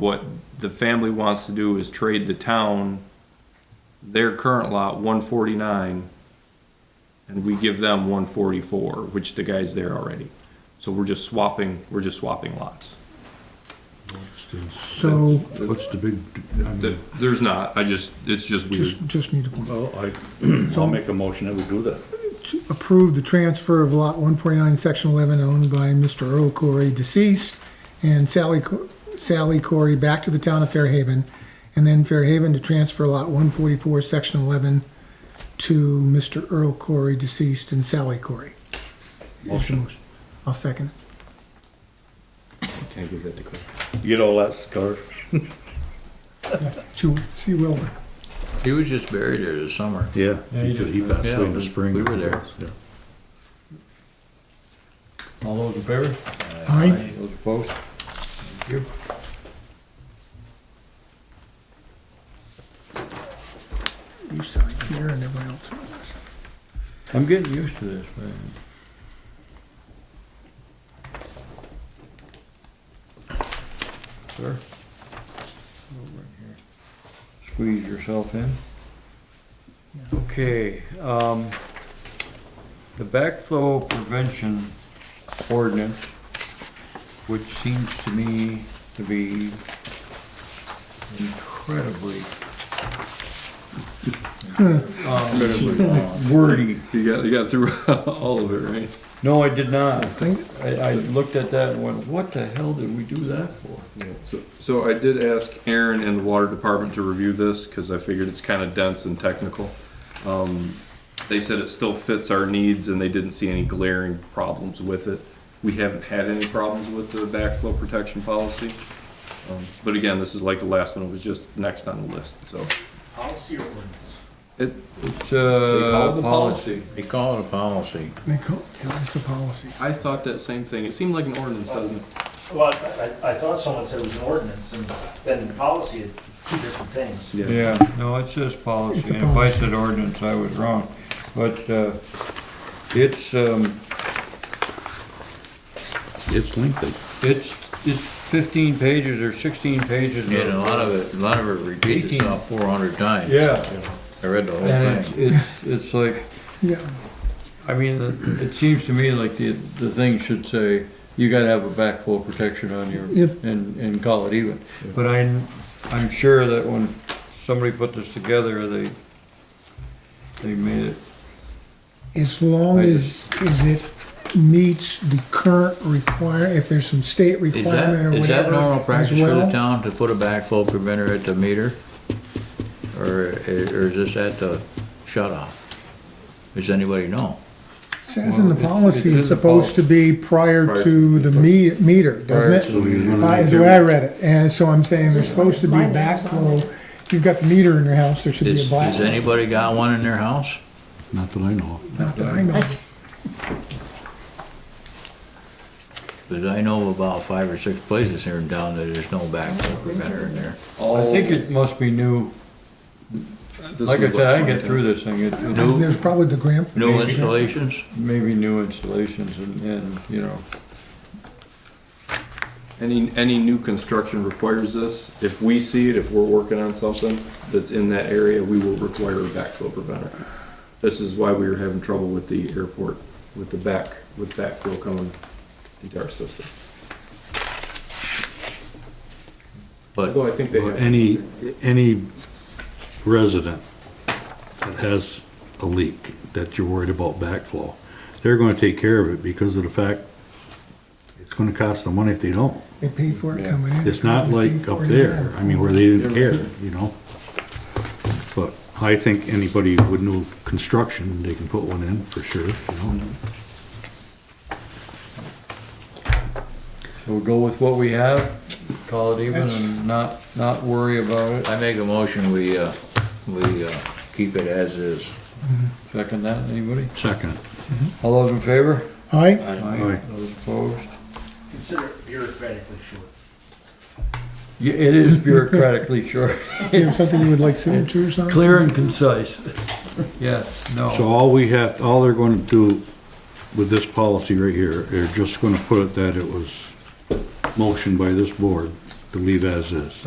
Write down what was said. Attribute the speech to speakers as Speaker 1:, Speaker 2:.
Speaker 1: What the family wants to do is trade the town their current lot, one forty-nine, and we give them one forty-four, which the guy's there already. So we're just swapping, we're just swapping lots.
Speaker 2: So,
Speaker 3: What's the big, I
Speaker 1: Th-
Speaker 3: mean,
Speaker 1: There's not, I just, it's just weird.
Speaker 2: just, just need to
Speaker 4: Well, I, I'll make a motion that we do that.
Speaker 2: approve the transfer of lot one forty-nine, section eleven, owned by Mr. Earl Corey, deceased, and Sally, Co- Sally Corey back to the town of Fairhaven, and then Fairhaven to transfer lot one forty-four, section eleven, to Mr. Earl Corey, deceased, and Sally Corey. Is the
Speaker 4: Motion.
Speaker 2: I'll second it.
Speaker 1: Can I give that to Claire?
Speaker 4: You get all that, Scar?
Speaker 2: She, she will.
Speaker 5: He was just buried there this summer.
Speaker 4: Yeah.
Speaker 3: Yeah, he just-
Speaker 4: He passed
Speaker 5: yeah,
Speaker 4: away in the spring.
Speaker 5: we were there.
Speaker 4: Yeah.
Speaker 3: all those in favor?
Speaker 2: Aye.
Speaker 3: Those opposed? Thank you.
Speaker 2: You sign here and everyone else.
Speaker 3: I'm getting used to this, man. Sir? Over in here. Squeeze yourself in. Okay, um, the backflow prevention ordinance, which seems to me to be incredibly incredibly wordy.
Speaker 1: You got, you got through all of it, right?
Speaker 3: No, I did not.
Speaker 2: think-
Speaker 3: I, I looked at that and went, what the hell did we do that for?
Speaker 1: So- So I did ask Aaron and the water department to review this, cause I figured it's kinda dense and technical. Um, they said it still fits our needs and they didn't see any glaring problems with it. We haven't had any problems with the backflow protection policy. Um, But again, this is like the last one, it was just next on the list, so. It, uh,
Speaker 3: It's a policy.
Speaker 5: They call it a policy.
Speaker 2: They call, yeah, it's a policy.
Speaker 1: I thought that same thing, it seemed like an ordinance, doesn't it?
Speaker 6: Well, I- I, I thought someone said it was an ordinance, and then the policy is two different things.
Speaker 3: Yeah, no, it says policy,
Speaker 2: It's a
Speaker 3: and if I said ordinance, I was wrong, but, uh, it's, um,
Speaker 5: It's lengthy.
Speaker 3: it's, it's fifteen pages or sixteen pages.
Speaker 5: And a lot of it, a lot of it repeats
Speaker 3: Eighteen.
Speaker 5: itself four hundred times.
Speaker 3: Yeah,
Speaker 5: I read the whole
Speaker 3: and it's,
Speaker 5: thing.
Speaker 3: it's, it's like,
Speaker 2: Yeah.
Speaker 3: I mean, it- it seems to me like the, the thing should say, you gotta have a backflow protection on your,
Speaker 2: Yep.
Speaker 3: and, and call it even. But I, I'm sure that when somebody put this together, they, they made it,
Speaker 2: As long
Speaker 3: I
Speaker 2: as, as it meets the current require, if there's some state
Speaker 5: Is that,
Speaker 2: requirement or whatever.
Speaker 5: is that normal
Speaker 2: as
Speaker 5: practice for the
Speaker 2: well.
Speaker 5: town to put a backflow preventer at the meter? Or, or is this at the shut off? Does anybody know?
Speaker 2: Says in the
Speaker 3: Well, it's-
Speaker 2: policy,
Speaker 3: it's in
Speaker 2: it's
Speaker 3: the
Speaker 2: supposed to be prior to the me- meter, doesn't
Speaker 3: Prior
Speaker 2: it?
Speaker 3: to the meter.
Speaker 2: Uh, Is the way I read it, and so I'm saying there's supposed to be backflow, if you've got the meter in your house, there should be a
Speaker 5: Is, has
Speaker 2: black,
Speaker 5: anybody got one in their house?
Speaker 7: Not that I know of.
Speaker 2: not that I know. of.
Speaker 5: Cause I know of about five or six places here in town that there's no backflow preventer in there.
Speaker 3: I think it must be new, like I said, I can get through this thing, it's
Speaker 5: No.
Speaker 2: There's probably the gram.
Speaker 5: New installations?
Speaker 3: maybe new installations and, and, you know,
Speaker 1: Any, any new construction requires this. If we see it, if we're working on something that's in that area, we will require a backflow preventer. This is why we were having trouble with the airport, with the back, with backflow coming into our system.
Speaker 5: But
Speaker 1: Although I think they
Speaker 7: But
Speaker 1: have,
Speaker 7: Any, any resident that has a leak that you're worried about backflow, they're gonna take care of it because of the fact it's gonna cost them money if they don't.
Speaker 2: They paid for it coming in.
Speaker 7: It's not
Speaker 2: They
Speaker 7: like
Speaker 2: paid
Speaker 7: up
Speaker 2: for it
Speaker 7: there,
Speaker 2: again.
Speaker 7: I mean, where they didn't care, you know? But I think anybody with new construction, they can put one in for sure, you know?
Speaker 3: so we'll go with what we have, call it even and not, not worry about it.
Speaker 5: I make a motion, we, uh, we, uh, keep it as is.
Speaker 3: Second that, anybody?
Speaker 7: Second,
Speaker 3: All those in favor?
Speaker 2: All right,
Speaker 7: Aye.
Speaker 3: Those opposed?
Speaker 6: Consider it bureaucratically short.
Speaker 3: Yeah, it is bureaucratically short.
Speaker 2: do you have something you would like signatures on?
Speaker 3: Clear and concise. Yes,
Speaker 7: so
Speaker 3: no.
Speaker 7: all we have, all they're gonna do with this policy right here, they're just gonna put it that it was motioned by this board to leave as is.